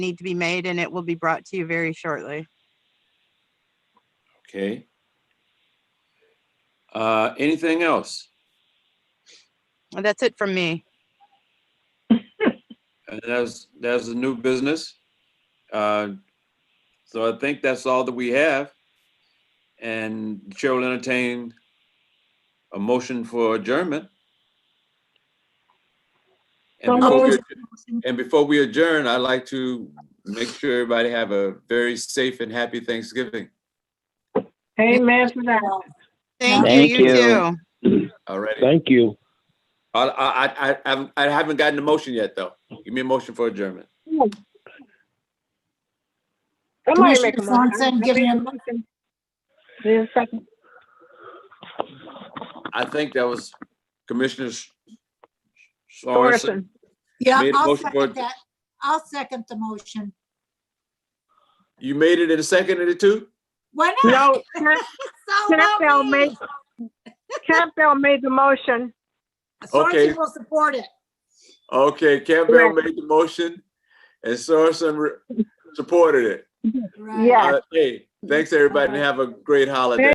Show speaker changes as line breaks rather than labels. need to be made and it will be brought to you very shortly.
Okay. Uh, anything else?
And That's it from me.
And that's, that's the new business. Uh, so I think that's all that we have. And the Chair will entertain a motion for adjournment.
So
And before, we,
moved.
and before we adjourn, I'd like to make sure everybody have a very safe and happy Thanksgiving.
Amen for that.
Thank you,
Thank
you
you.
too.
All righty.
Thank you.
I, I, I- I, haven't- I haven't gotten a motion yet, though. Give me a motion for adjournment.
Somebody make a
Commissioner Swanson,
motion.
give me a-
There's a second.
I think that was Commissioner S- Sorensen.
Morrison.
Yeah,
Made a
I'll
motion for
second
it.
that. I'll second the motion.
You made it in a second and a two?
Why not?
No, Camp-
So
Campbell
help me.
made, Campbell made the motion.
Okay.
Sorensen will support it.
Okay, Campbell made the motion and Sorensen re- supported it.
Right.
Yeah.
Uh, Hey, thanks, everybody, and have a great holiday.